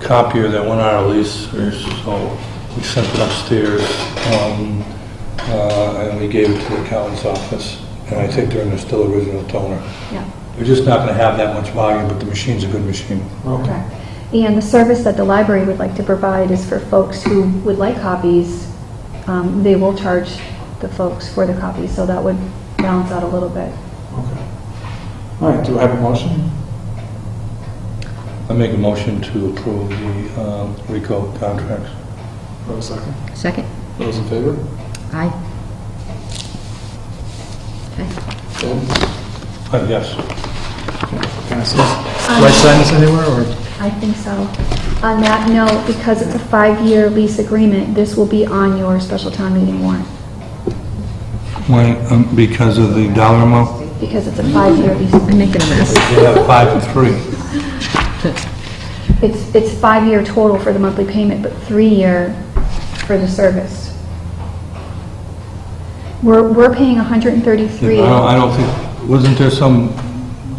copier that went on our lease, so we sent it upstairs, um, uh, and we gave it to the accountant's office, and I think they're in the still original toner. Yeah. They're just not gonna have that much volume, but the machine's a good machine. Correct. And the service that the library would like to provide is for folks who would like copies, um, they will charge the folks for the copies, so that would balance out a little bit. Okay. All right, do I have a motion? I make a motion to approve the um, RICO contracts. Do I have a second? Second? Those in favor? Aye. Okay. Ben? Uh, Yes. Passes. Do I sign this anywhere, or? Um, I think so. On that note, because it's a five-year lease agreement, this will be on your special town meeting warrant, Why, um, because of the dollar amount? because it's a five-year I'm lease. making a mess. They have five and three. It's, it's five-year total for the monthly payment, but three-year for the service. We're, we're paying I 133. don't, I don't think, wasn't there some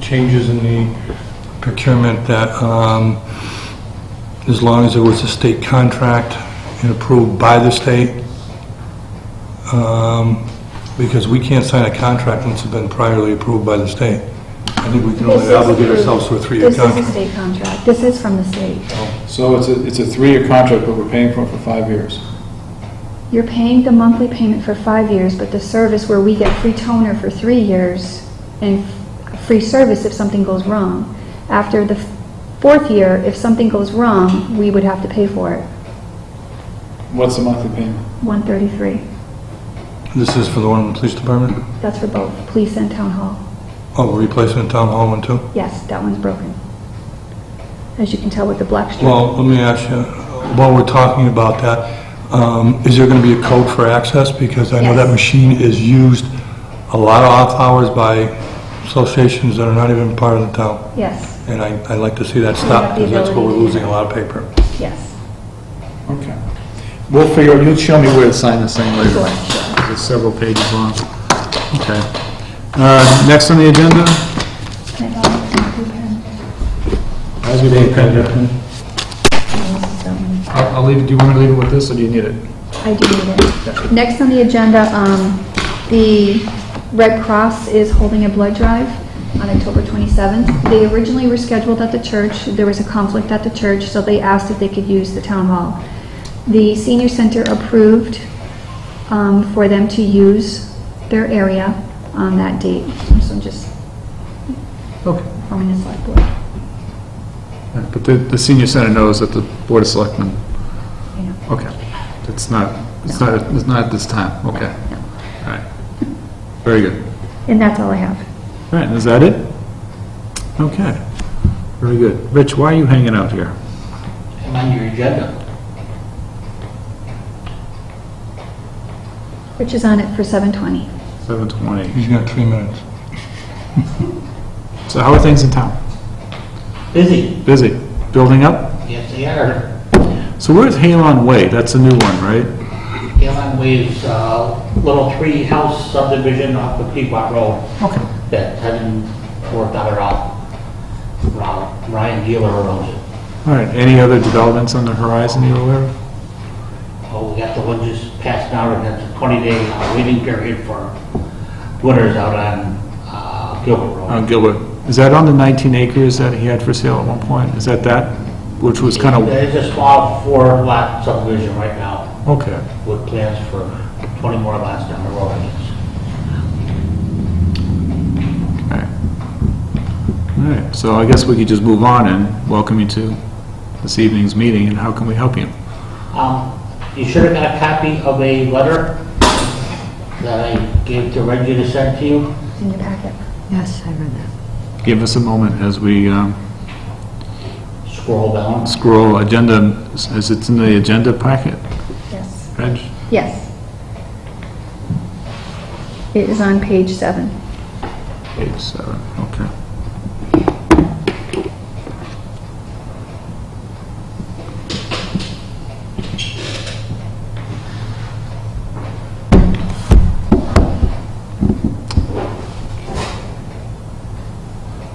changes in the procurement that, um, as long as it was a state contract and approved by the state? Um, because we can't sign a contract unless it's been priorly approved by the state. I think we can This only is obligate approved. ourselves to a three-year This is a contract. state contract. This is from the state. So it's a, it's a three-year contract, but we're paying for it for five years. You're paying the monthly payment for five years, but the service where we get free toner for three years and f- free service if something goes wrong. After the f- fourth year, if something goes wrong, we would have to pay for it. What's the monthly payment? 133. This is for the one in the police department? That's for both police and town hall. Oh, we're replacing the town hall one too? Yes, that one's broken. As you can tell with the black strip. Well, let me ask you, while we're talking about that, um, is there going to be a code for access? Because I know that Yes. machine is used a lot of off-hours by associations that are not even part of the town, Yes, and I- I'd like to see that We have stop, the because that's where we're ability to do losing a lot of paper. yes. Okay. We'll figure, you'll show me where to sign this thing later. It's several pages long. Okay. Uh, Next on the agenda? Can I borrow my blue pen? I'll I'll leave, it. do you want me to leave it with this, or do you need it? I do need it. Next on the agenda, um, the Red Cross is holding a blood drive on October 27th. They originally were scheduled at the church. There was a conflict at the church, so they asked if they could use the town hall. The senior center approved um, for them to use their area on that date. So I'm just Okay. forming this select board. But the, the senior center knows that the Board of Selectmen, you know. okay. It's not, it's not, it's not at this time, okay. All right. Very good. And that's all I have. All right, is that it? Okay. Very good. Rich, why are you hanging out here? I'm on your agenda. Rich is on it for 7:20. 7:20. He's got three minutes. So how are things in town? Busy. Busy? Building up? Yes, they are. So where's Halon Way? That's a new one, right? Galen Way's uh, little three-house subdivision off the Pequot Road Okay. that hasn't worked out at all. Ron- Ryan Dealer owns it. All right, any other developments on the horizon you're aware of? Oh, we got the one just passed out, and that's a 20-day waiting period for winners out on uh, Gilbert On Road. Gilbert. Is that on the 19 acres that he had for sale at one point? Is that that? Which was kind of, It's a small four-lot subdivision right now okay. with plans for 20 more lots down the road, I guess. All right. All right, so I guess we could just move on and welcome you to this evening's meeting, and how can we help you? Um, You should have got a copy of a letter that I gave to Reggie to send to you. It's in your packet. Yes, I read that. Give us a moment as we um, Scroll down. scroll agenda, as it's in the agenda packet, Yes. Reg? Yes. It is on page seven. Page seven, okay.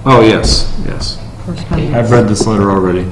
Oh, yes, yes. Correspondence. Oh, I've read this letter already.